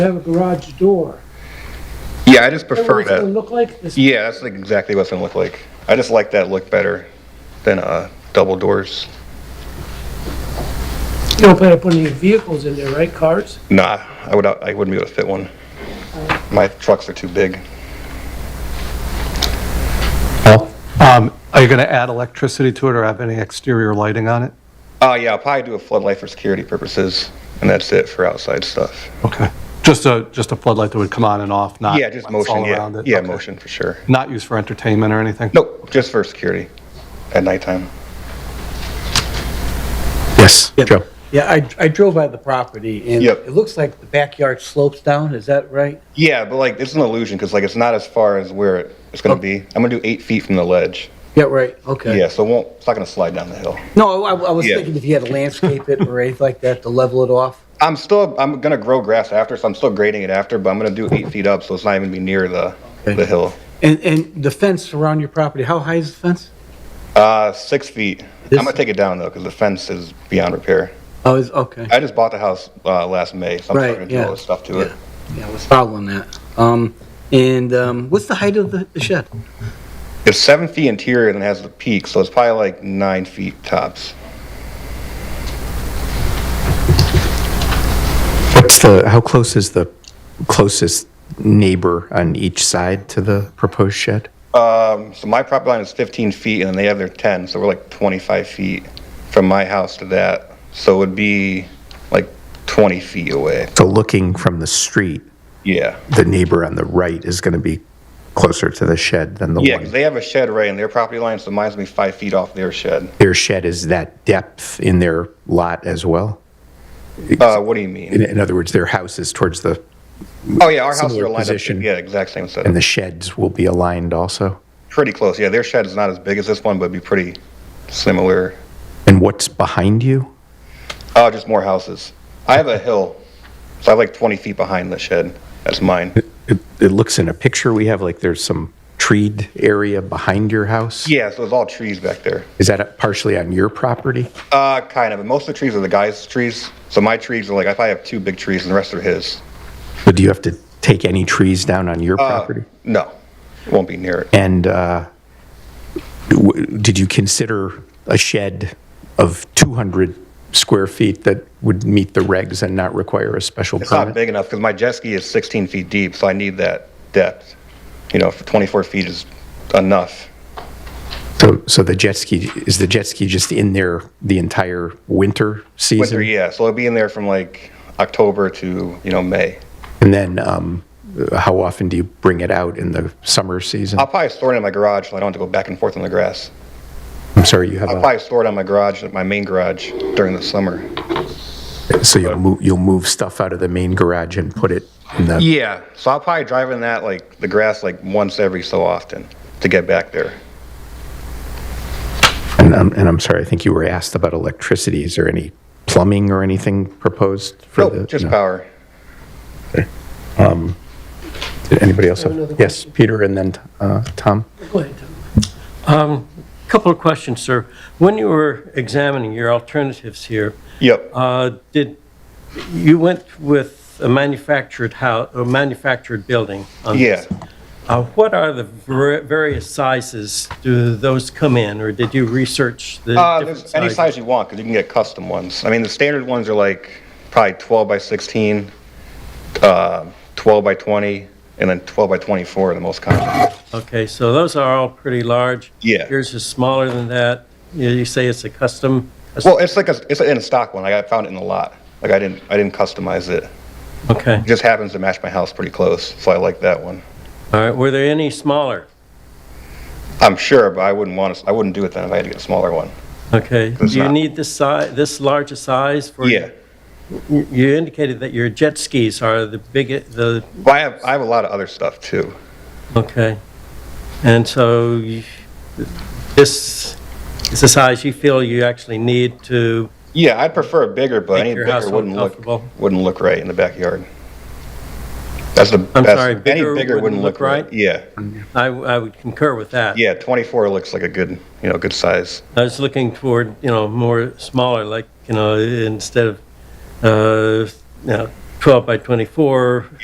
have a garage door. Yeah, I Is just that prefer what it's gonna that. look like? This- Yeah, that's like exactly what it's gonna look like. I just like that look better than uh, double doors. You don't plan on putting any vehicles in there, right, cars? Nah, I would I wouldn't be able to fit one. My trucks are too big. Well, um, Are you going to add electricity to it or have any exterior lighting on it? Oh yeah, I'll probably do a floodlight for security purposes, and that's it for outside stuff. Okay. Just a, just a floodlight that would come on and off, not? yeah, just lights all motion. Yeah, around it? yeah, Okay. motion for sure. Not used for entertainment or anything? Nope, just for security at nighttime. Yes, Yeah. Joe. Yeah, I, I drove by the property and Yep. it looks like the backyard slopes down, is that right? Yeah, but like it's an illusion because like it's not as far as where it, it's Oh. gonna be. I'm gonna do eight feet from the ledge. Yeah, right, okay. Yeah, so it won't. It's not gonna slide down the hill. No, I, I was Yeah. thinking if you had to landscape it or anything like that to level it off. I'm still I'm gonna grow grass after, so I'm still grading it after, but I'm gonna do eight feet up, so it's not even be near the Okay. the hill. And, and the fence around your property, how high is the fence? Uh, six feet. This- I'm gonna take it down though, because the fence is beyond repair. Oh, is, okay. I just bought the house uh, last May, so I'm Right, starting to do yeah. all this stuff to it. Yeah, I was following that. Um, and, um, what's the height of the the shed? It's seven feet interior and it has the peak, so it's probably like nine feet tops. What's the, how close is the closest neighbor on each side to the proposed shed? Um, so my property line is 15 feet, and then they have their 10, so we're like 25 feet from my house to that. So it would be like 20 feet away. So looking from the street, Yeah. the neighbor on the right is going to be closer to the shed than the Yeah, because one. they have a shed right in their property line, so mine's gonna be five feet off their shed. Their shed is that depth in their lot as well? Uh, what do you In, mean? in other words, their house is towards the, Oh, yeah, our houses Similar are lined up. position. Yeah, exact same and setup. the sheds will be aligned also? Pretty close. Yeah, their shed is not as big as this one, but it'd be pretty similar. And what's behind you? Oh, just more houses. I have a hill, so I have like 20 feet behind the shed. That's mine. It, it looks in a picture we have like there's some treed area behind your house? Yeah, so it's all trees back there. Is that partially on your property? Uh, kind of. And most of the trees are the guy's trees. So my trees are like, if I have two big trees and the rest are his. But do you have to take any trees down on Uh, your property? No, it won't be near it. And uh, w- did you consider a shed of 200 square feet that would meet the regs and not require a special It's not permit? big enough because my jet ski is 16 feet deep, so I need that depth. You know, for 24 feet is enough. So, so the jet ski, is the jet ski just in there the entire winter season? Winter, yeah. So it'll be in there from like October to, you know, May. And then um, how often do you bring it out in the summer season? I'll probably store it in my garage so I don't have to go back and forth on the grass. I'm sorry, you have I'll a, probably store it on my garage, my main garage during the summer. so you'll move, you'll move stuff out of the main garage and put it in the Yeah, so I'll probably drive in that like the grass like once every so often to get back there. And I'm, and I'm sorry, I think you were asked about electricity. Is there any plumbing or anything proposed for Nope, the? Oh, just no. power. Did anybody else? have- another Yes, Peter and then uh, Tom. Go ahead, Tom. Couple of questions, sir. When you were examining your alternatives here, Yep. uh, did, you went with a manufactured house, a manufactured building on Yeah. this? Uh, What are the var- various sizes? Do those come in, or did you research the Uh, different there's any sizes? size you want because you can get custom ones. I mean, the standard ones are like probably 12 by 16, uh, 12 by 20, and then 12 by 24 are the most common. Okay, so those are all pretty large. Yeah. Yours is smaller than that. You you say it's a custom? Well, it's like a, it's an in stock one. Like I found it in the lot. Like I didn't I didn't customize it. Okay, It just happens to match my house pretty close, so I like that one. all right. Were there any smaller? I'm sure, but I wouldn't want to, I wouldn't do it then if I had to get a smaller one. Okay. Do It's you not- need this size, this large a size for? Yeah. You you indicated that your jet skis are the biggest, the, But I have, I have a lot of other stuff too. okay. And so you- this is the size you feel you actually need to Yeah, I'd prefer a bigger, but Make any your house bigger wouldn't look look, comfortable. wouldn't look right in the backyard. That's the, I'm that's- sorry, any bigger bigger wouldn't look right? Yeah, I, I would concur with that. yeah, 24 looks like a good, you know, good size. I was looking toward, you know, more smaller, like, you know, instead of, uh, you know, 12 by 24,